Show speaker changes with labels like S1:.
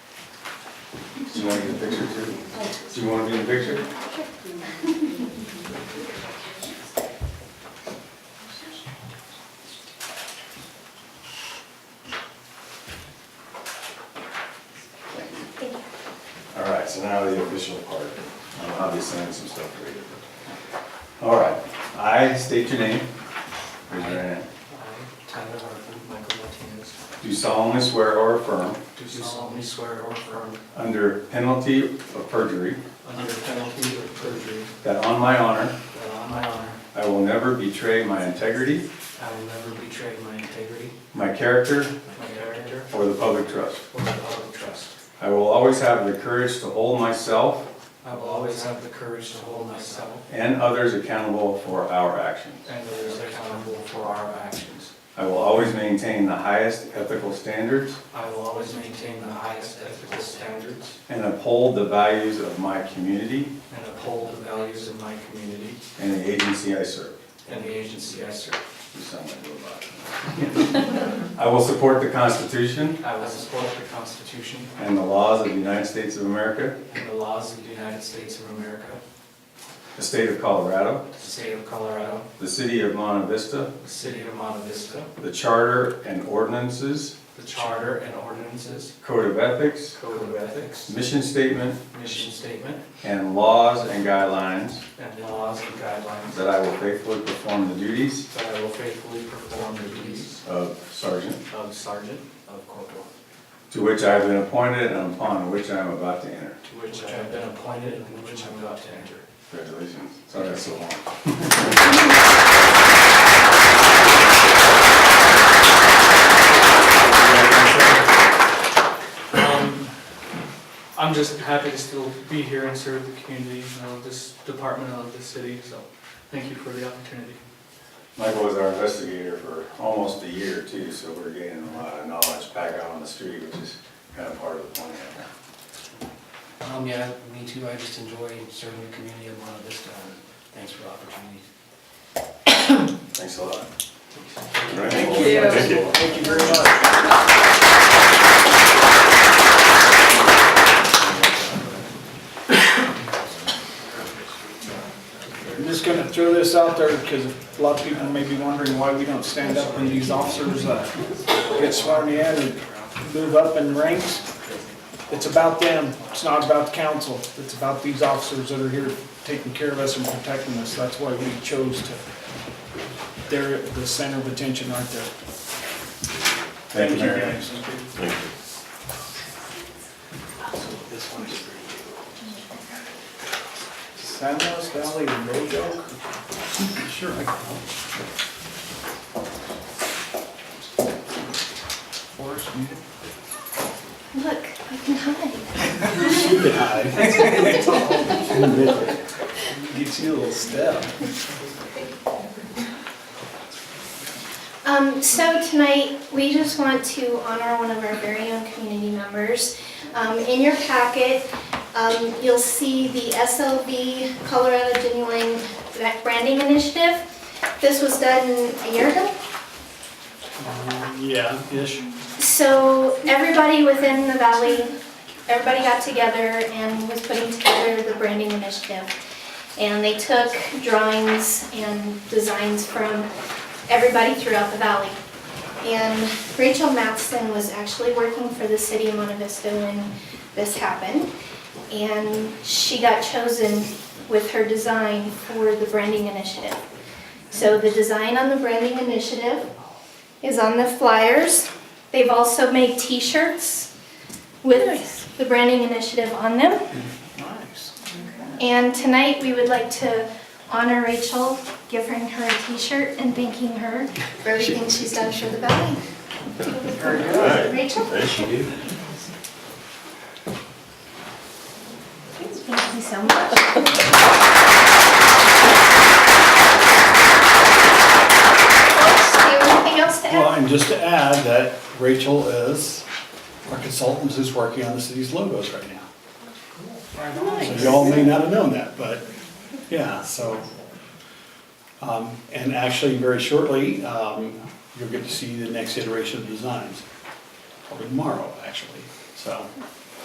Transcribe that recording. S1: Do you want to get a picture too? Do you want to be in the picture? All right, so now the official part. Um, Obviously, I have some stuff for you. All right, I state your name. Raise your hand.
S2: I, Tyler Hartman, Michael Martinez,
S1: Do solemnly swear or affirm,
S2: do solemnly swear or affirm,
S1: under penalty of perjury,
S2: under penalty of perjury,
S1: that on my honor,
S2: that on my honor,
S1: I will never betray my integrity,
S2: I will never betray my integrity,
S1: my character,
S2: my character,
S1: or the public trust.
S2: or the public trust.
S1: I will always have the courage to hold myself
S2: I will always have the courage to hold myself
S1: and others accountable for our actions.
S2: and others accountable for our actions.
S1: I will always maintain the highest ethical standards
S2: I will always maintain the highest ethical standards
S1: and uphold the values of my community
S2: and uphold the values of my community
S1: and the agency I serve.
S2: and the agency I serve.
S1: You sound like a robot. I will support the Constitution
S2: I will support the Constitution
S1: and the laws of the United States of America,
S2: and the laws of the United States of America,
S1: the state of Colorado,
S2: the state of Colorado,
S1: the city of Monte Vista,
S2: the city of Monte Vista,
S1: the charter and ordinances,
S2: the charter and ordinances,
S1: code of ethics,
S2: code of ethics,
S1: mission statement,
S2: mission statement,
S1: and laws and guidelines
S2: and laws and guidelines
S1: that I will faithfully perform the duties
S2: that I will faithfully perform the duties
S1: of sergeant
S2: of sergeant of corporal.
S1: to which I have been appointed and upon which I am about to enter.
S2: To which I have been appointed and which I'm about to enter.
S1: Congratulations. Sorry that's so long.
S3: Um, I'm just happy to still be here and serve the community, I
S2: uh,
S3: love this department, I love this city, so thank you for the opportunity.
S1: Michael was our investigator for almost a year too, so we're gaining a lot of knowledge back out on the street, which is kind of part of the plan.
S2: Um, yeah, me too, I just enjoy serving the community of Monte Vista, and thanks for the opportunity.
S1: Thanks a lot.
S4: Thank you. Thank you very much.
S5: I'm just gonna throw this out there because a lot of people may be wondering why we don't stand up when these officers uh, get sworn in and move up in ranks. It's about them, it's not about the council, it's about these officers that are here taking care of us and protecting us. That's why we chose to, they're the center of attention, aren't they?
S1: Thank you, Mary.
S2: This one is for
S5: San Luis Valley Road Dog? Sure. Forest, you
S4: Look, I can hide.
S5: can hide. Get you a little step.
S4: Um, so tonight, we just want to honor one of our very own community members. Um, in your packet, um, you'll see the SLB Colorado Genuine Branding Initiative. This was done a year ago.
S5: Yeah, ish.
S4: So everybody within the valley, everybody got together and was putting together the branding initiative. And they took drawings and designs from everybody throughout the valley. And Rachel Matson was actually working for the city of Monte Vista when this happened. And she got chosen with her design for the branding initiative. So the design on the branding initiative is on the flyers. They've also made t-shirts with the branding initiative on them.
S5: Nice.
S4: And tonight, we would like to honor Rachel, giving her a t-shirt and thanking her for everything she's done for the valley. Rachel? Thank you. Thank you so much. Do you have anything else to add?
S6: Well, and just to add that Rachel is our consultant who's working on the city's logos right now. So y'all may not have known that, but, yeah, so. Um, and actually, very shortly, um, you'll get to see the next iteration of designs, probably tomorrow, actually, so.